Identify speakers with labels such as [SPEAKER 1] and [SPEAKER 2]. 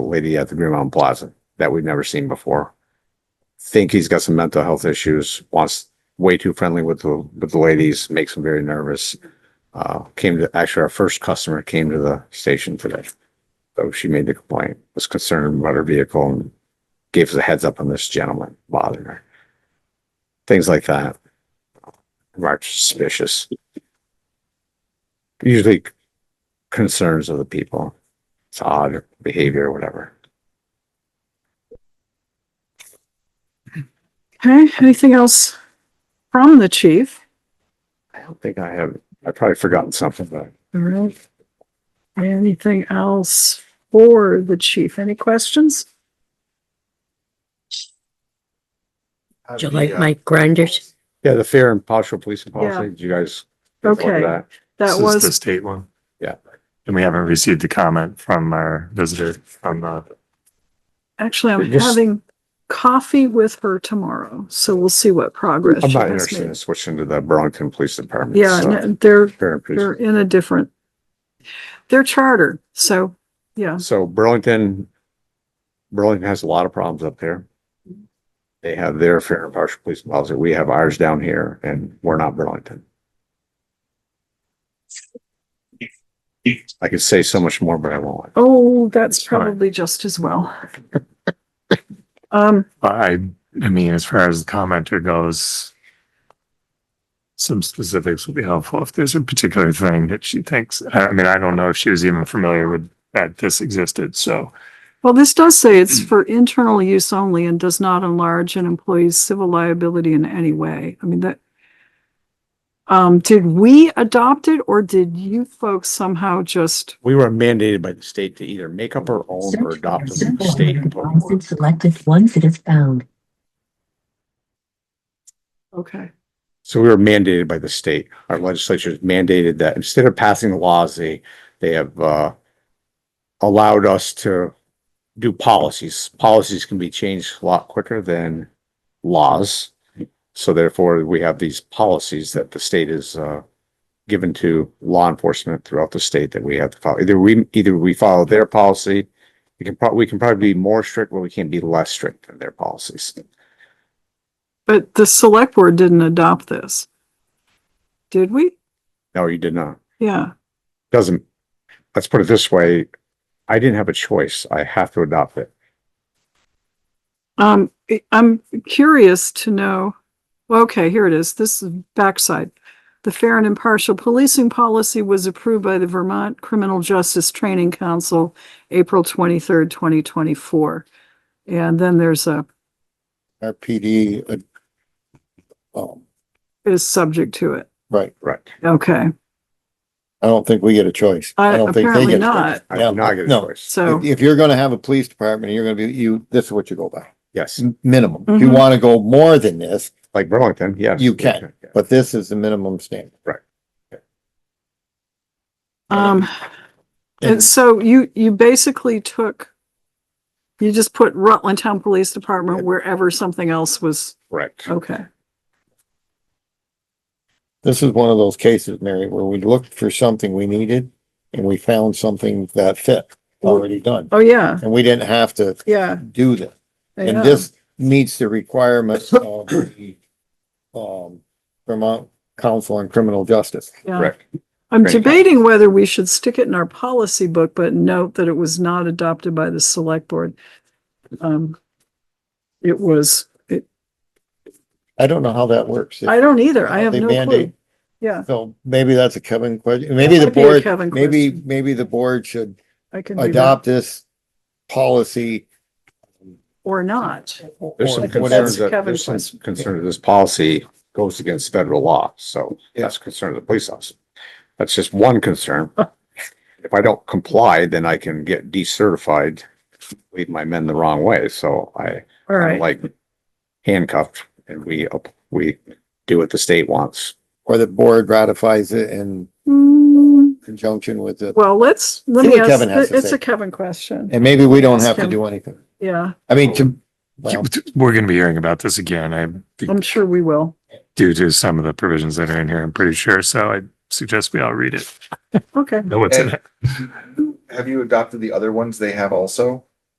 [SPEAKER 1] lady at the Green Mountain Plaza that we've never seen before. Think he's got some mental health issues, wants way too friendly with the, with the ladies, makes them very nervous. Uh, came to, actually, our first customer came to the station today. So she made the complaint, was concerned about her vehicle and gave us a heads up on this gentleman bothering her. Things like that. March suspicious. Usually concerns of the people. It's odd behavior or whatever.
[SPEAKER 2] Okay, anything else from the chief?
[SPEAKER 1] I don't think I have, I've probably forgotten something, but
[SPEAKER 2] All right. Anything else for the chief? Any questions?
[SPEAKER 3] Do you
[SPEAKER 4] uh,
[SPEAKER 3] like
[SPEAKER 1] uh,
[SPEAKER 3] Mike Grinders?
[SPEAKER 1] yeah, the fair and partial policing policy, did you guys? look at
[SPEAKER 2] Okay.
[SPEAKER 1] that?
[SPEAKER 2] That
[SPEAKER 4] This is The
[SPEAKER 2] was,
[SPEAKER 4] state one.
[SPEAKER 1] Yeah.
[SPEAKER 4] And we haven't received a comment from our visitor from uh, the,
[SPEAKER 2] actually, I'm
[SPEAKER 1] Just-
[SPEAKER 2] having coffee with her tomorrow, so we'll see what progress
[SPEAKER 1] I'm
[SPEAKER 2] she
[SPEAKER 1] not
[SPEAKER 2] has
[SPEAKER 1] interested in
[SPEAKER 2] made.
[SPEAKER 1] switching to the Burlington Police Department.
[SPEAKER 2] Yeah,
[SPEAKER 1] so
[SPEAKER 2] and they're,
[SPEAKER 1] fair and police-
[SPEAKER 2] they're in a different, they're charter, so, yeah,
[SPEAKER 1] So Burlington, Burlington has a lot of problems up there. They have their fair and partial policing policy. We have ours down here and we're not Burlington. I could say so much more, but I won't.
[SPEAKER 2] oh, that's
[SPEAKER 4] Fine.
[SPEAKER 2] probably just as well. Um,
[SPEAKER 4] I, I mean, as far as the commenter goes, some specifics would be helpful if there's a particular thing that she thinks, I I mean, I don't know if she was even familiar with that this existed, so.
[SPEAKER 2] well, this does say it's for internal use only and does not enlarge an employee's civil liability in any way. I mean, that um, did we adopt it or did you folks somehow just,
[SPEAKER 1] We were mandated by the state to either make up our own or adopt a state.
[SPEAKER 3] and Selected ones that have found.
[SPEAKER 2] okay,
[SPEAKER 1] So we were mandated by the state. Our legislature is mandated that instead of passing the laws, they, they have, uh, allowed us to do policies. Policies can be changed a lot quicker than laws. So therefore, we have these policies that the state is, uh, given to law enforcement throughout the state that we have to follow. Either we, either we follow their policy. We can prob, we can probably be more strict, but we can't be less strict than their policies.
[SPEAKER 2] but the select board didn't adopt this. Did we?
[SPEAKER 1] No, you did not.
[SPEAKER 2] Yeah,
[SPEAKER 1] doesn't, let's put it this way, I didn't have a choice. I have to adopt it.
[SPEAKER 2] um, I- I'm curious to know, well, okay, here it is, this is backside. The fair and impartial policing policy was approved by the Vermont Criminal Justice Training Council, April twenty-third, twenty twenty-four. And then there's a,
[SPEAKER 5] our PD, uh, um,
[SPEAKER 2] is subject to it,
[SPEAKER 5] right,
[SPEAKER 1] Right.
[SPEAKER 2] okay,
[SPEAKER 5] I don't think we get a choice.
[SPEAKER 2] Uh,
[SPEAKER 5] I don't think they
[SPEAKER 2] apparently
[SPEAKER 5] get a
[SPEAKER 2] not.
[SPEAKER 5] choice.
[SPEAKER 1] I did not get a
[SPEAKER 5] No.
[SPEAKER 1] choice.
[SPEAKER 2] so,
[SPEAKER 5] If, if you're gonna have a police department, you're gonna be, you, this is what you go by,
[SPEAKER 1] Yes,
[SPEAKER 5] minimum. If you
[SPEAKER 2] Mhm.
[SPEAKER 5] wanna go more than this,
[SPEAKER 1] like Burlington, yes.
[SPEAKER 5] You can.
[SPEAKER 1] Yeah.
[SPEAKER 5] but this is the minimum standard.
[SPEAKER 2] um,
[SPEAKER 5] And
[SPEAKER 2] and so you, you basically took, you just put Rutland Town Police Department wherever something else was,
[SPEAKER 1] Correct.
[SPEAKER 2] okay.
[SPEAKER 5] this is one of those cases, Mary, where we looked for something we needed and we found something that fit, already done.
[SPEAKER 2] Oh, yeah,
[SPEAKER 5] And we didn't have to
[SPEAKER 2] yeah.
[SPEAKER 5] do this. And
[SPEAKER 2] yeah.
[SPEAKER 5] this meets the requirements of the, um, Vermont Council on Criminal Justice.
[SPEAKER 2] Yeah.
[SPEAKER 1] Correct.
[SPEAKER 2] I'm
[SPEAKER 1] Great.
[SPEAKER 2] debating whether we should stick it in our policy book, but note that it was not adopted by the select board. Um, it was, it,
[SPEAKER 5] I don't know how that works.
[SPEAKER 2] I don't either. I have
[SPEAKER 5] They
[SPEAKER 2] no clue.
[SPEAKER 5] mandate.
[SPEAKER 2] Yeah,
[SPEAKER 5] So maybe that's a Kevin question. Maybe
[SPEAKER 2] That
[SPEAKER 5] the
[SPEAKER 2] might be a
[SPEAKER 5] board,
[SPEAKER 2] Kevin
[SPEAKER 5] maybe,
[SPEAKER 2] question.
[SPEAKER 5] maybe the board should
[SPEAKER 2] I can do that
[SPEAKER 5] adopt this policy.
[SPEAKER 2] or not.
[SPEAKER 5] or
[SPEAKER 1] There's some
[SPEAKER 2] That's
[SPEAKER 5] whatever.
[SPEAKER 1] concerns that,
[SPEAKER 2] Kevin's
[SPEAKER 1] there's some
[SPEAKER 2] question.
[SPEAKER 1] concern that this policy goes against federal law. So that's a concern of the police officer. That's just one concern. If I don't comply, then I can get decertified, lead my men the wrong way. So I,
[SPEAKER 2] All
[SPEAKER 1] I'm
[SPEAKER 2] right,
[SPEAKER 1] like handcuffed and we, up- we do what the state wants.
[SPEAKER 5] Or the board ratifies it in
[SPEAKER 2] Hmm,
[SPEAKER 5] conjunction with it.
[SPEAKER 2] well, let's, let
[SPEAKER 5] See
[SPEAKER 2] me
[SPEAKER 5] what Kevin has
[SPEAKER 2] ask,
[SPEAKER 5] to
[SPEAKER 2] it's
[SPEAKER 5] say.
[SPEAKER 2] a Kevin question.
[SPEAKER 5] And maybe we don't
[SPEAKER 2] Ask
[SPEAKER 5] have to
[SPEAKER 2] him.
[SPEAKER 5] do anything.
[SPEAKER 2] Yeah,
[SPEAKER 5] I mean, to, well,
[SPEAKER 4] We're gonna be hearing about this again, I
[SPEAKER 2] I'm sure we will.
[SPEAKER 4] due to some of the provisions that are in here, I'm pretty sure, so I suggest we all read it,
[SPEAKER 2] Okay.
[SPEAKER 4] know what's in it.
[SPEAKER 6] Have you adopted the other ones they have also?